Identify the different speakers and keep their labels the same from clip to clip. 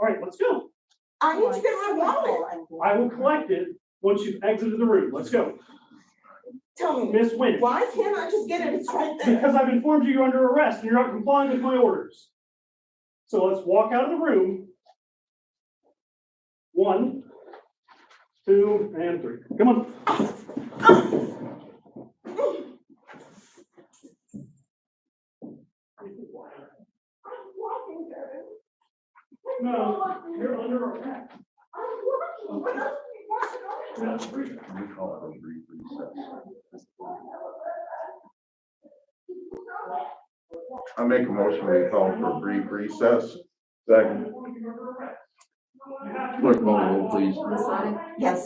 Speaker 1: Let's go.
Speaker 2: I need to get my wallet.
Speaker 1: I will collect it once you've exited the room. Let's go.
Speaker 2: Tell me,
Speaker 1: Miss Nguyen,
Speaker 2: why can't I just get it? It's right there.
Speaker 1: because I've informed you you're under arrest and you're not complying with my orders. So let's walk out of the room. One, two, and three. Come on.
Speaker 2: I'm walking, Kevin.
Speaker 1: No, you're under arrest.
Speaker 2: I'm walking. What else do you want to know?
Speaker 1: That's free.
Speaker 3: We call it a brief recess. I make a motion, we call for a brief recess. Second.
Speaker 1: Clerk,
Speaker 3: Clerk, call the roll, please.
Speaker 4: Masonic?
Speaker 2: Yes.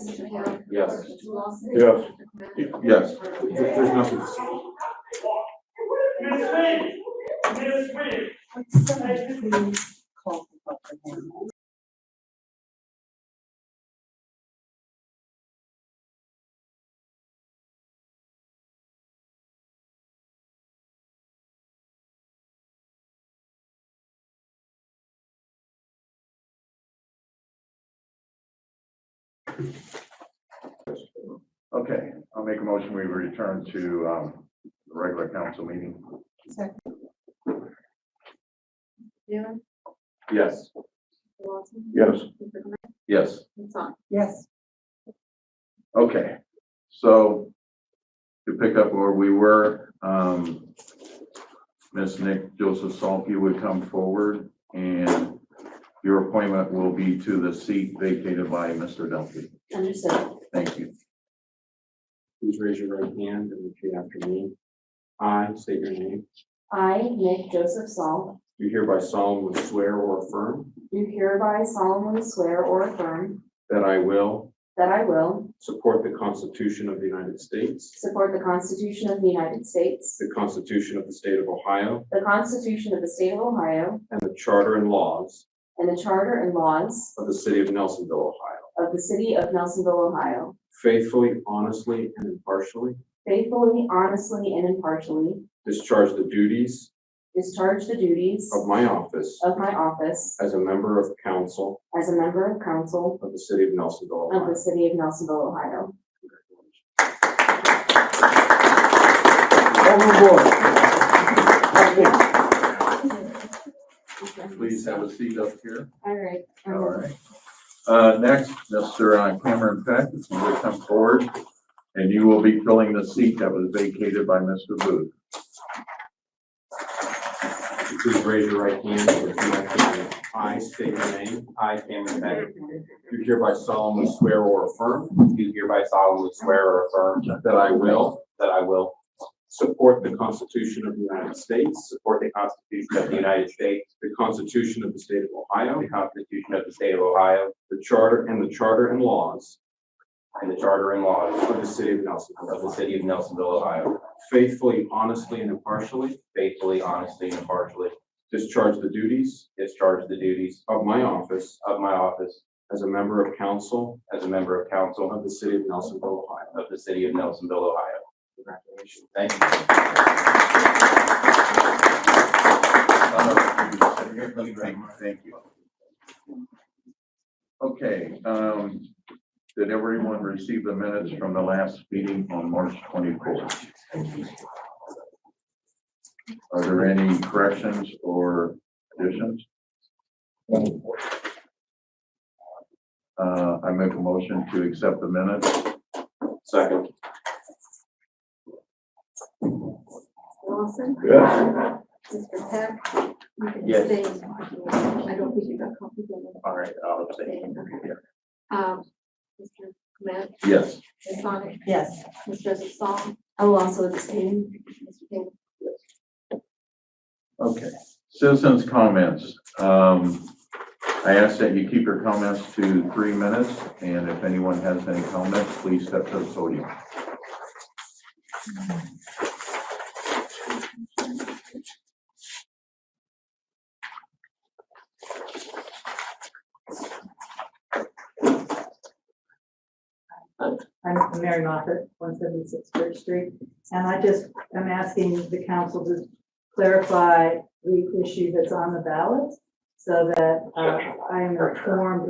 Speaker 3: Yes.
Speaker 4: Lawson?
Speaker 3: Yes. Yes. There's nothing.
Speaker 1: Miss Nguyen, Miss Nguyen.
Speaker 3: Okay, I'll make a motion, we return to, um, the regular council meeting.
Speaker 4: Newman?
Speaker 3: Yes.
Speaker 4: Lawson?
Speaker 3: Yes.
Speaker 4: Mr.
Speaker 3: Yes.
Speaker 4: Masonic?
Speaker 2: Yes.
Speaker 3: Okay, so to pick up where we were, um, Ms. Nick Joseph Salke would come forward and your appointment will be to the seat vacated by Mr. Dumpy.
Speaker 4: Understood.
Speaker 3: Thank you.
Speaker 5: Please raise your right hand and repeat after me. I state your name.
Speaker 4: I, Nick Joseph Saul,
Speaker 5: Do hereby solemnly swear or affirm
Speaker 4: do hereby solemnly swear or affirm
Speaker 5: that I will
Speaker 4: that I will
Speaker 5: support the Constitution of the United States,
Speaker 4: support the Constitution of the United States,
Speaker 5: the Constitution of the State of Ohio,
Speaker 4: the Constitution of the State of Ohio,
Speaker 5: and the Charter and laws
Speaker 4: and the Charter and laws
Speaker 5: of the City of Nelsonville, Ohio.
Speaker 4: of the City of Nelsonville, Ohio,
Speaker 5: Faithfully, honestly, and impartially
Speaker 4: faithfully, honestly, and impartially
Speaker 5: discharge the duties
Speaker 4: discharge the duties
Speaker 5: of my office
Speaker 4: of my office
Speaker 5: as a member of council
Speaker 4: as a member of council
Speaker 5: of the City of
Speaker 4: of
Speaker 5: Nelsonville,
Speaker 4: the
Speaker 5: Ohio.
Speaker 4: City of Nelsonville, Ohio.
Speaker 3: Please have a seat up here.
Speaker 4: All right.
Speaker 3: All right. Uh, next, Mr. Cameron Peck, if you would come forward, and you will be filling the seat that was vacated by Mr. Booth.
Speaker 5: Please raise your right hand and repeat after me. I state your name.
Speaker 6: I, Cameron Peck,
Speaker 5: Do hereby solemnly swear or affirm
Speaker 6: do hereby solemnly swear or affirm
Speaker 5: That I will
Speaker 6: that I will
Speaker 5: support the Constitution of the United States,
Speaker 6: support the Constitution of the United States,
Speaker 5: the Constitution of the State of Ohio,
Speaker 6: the Constitution of the State of Ohio,
Speaker 5: the Charter and the Charter and laws
Speaker 6: and the Charter and laws
Speaker 5: of the City of Nelsonville.
Speaker 6: of the City of Nelsonville, Ohio,
Speaker 5: Faithfully, honestly, and impartially
Speaker 6: faithfully, honestly, and impartially
Speaker 5: discharge the duties
Speaker 6: discharge the duties
Speaker 5: of my office
Speaker 6: of my office
Speaker 5: as a member of council
Speaker 6: as a member of council
Speaker 5: of the City of Nelsonville, Ohio.
Speaker 6: of the City of Nelsonville, Ohio.
Speaker 5: Congratulations.
Speaker 6: Thank you.
Speaker 3: Thank you. Okay, um, did everyone receive the minutes from the last meeting on March twenty-fourth? Are there any corrections or additions? Uh, I make a motion to accept the minutes.
Speaker 5: Second.
Speaker 4: Lawson? Mr. Peck? you can
Speaker 6: Yes.
Speaker 4: stay. I don't think you got copies of it.
Speaker 6: All right, I'll abstain.
Speaker 4: Okay. Um, Mr. Clement,
Speaker 3: Yes.
Speaker 4: Ms. Sonic,
Speaker 2: Yes.
Speaker 4: Ms. Joseph Song. I will also abstain. Mr. King.
Speaker 3: Okay, citizens' comments. Um, I ask that you keep your comments to three minutes, and if anyone has any comments, please step to the podium.
Speaker 7: I'm Mary Moffett, one seventy-six Church Street, and I just am asking the council to clarify the issue that's on the ballot. so that uh, I am informed